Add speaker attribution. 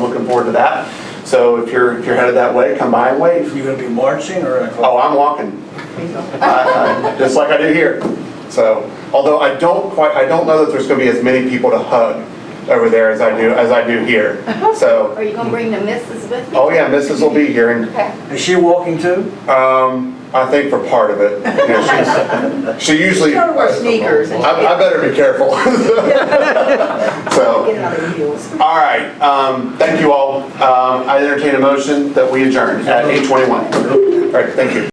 Speaker 1: forward to that. So if you're, if you're headed that way, come by and wave.
Speaker 2: You gonna be marching or?
Speaker 1: Oh, I'm walking, I- I- just like I do here. So, although I don't quite, I don't know that there's gonna be as many people to hug over there as I do, as I do here. So,
Speaker 3: Are you gonna bring the missus with you?
Speaker 1: oh yeah, Mrs. will be here and
Speaker 3: Okay.
Speaker 2: Is she walking too?
Speaker 1: Um, I think for part of it. You know, she's- She usually.
Speaker 4: She's gonna wear sneakers
Speaker 1: I,
Speaker 4: and-
Speaker 1: I better be careful. So,
Speaker 4: Get it out of your heels.
Speaker 1: all right, um, thank you all. Um, I entertain a motion that we adjourn at eight twenty-one. All right, thank you.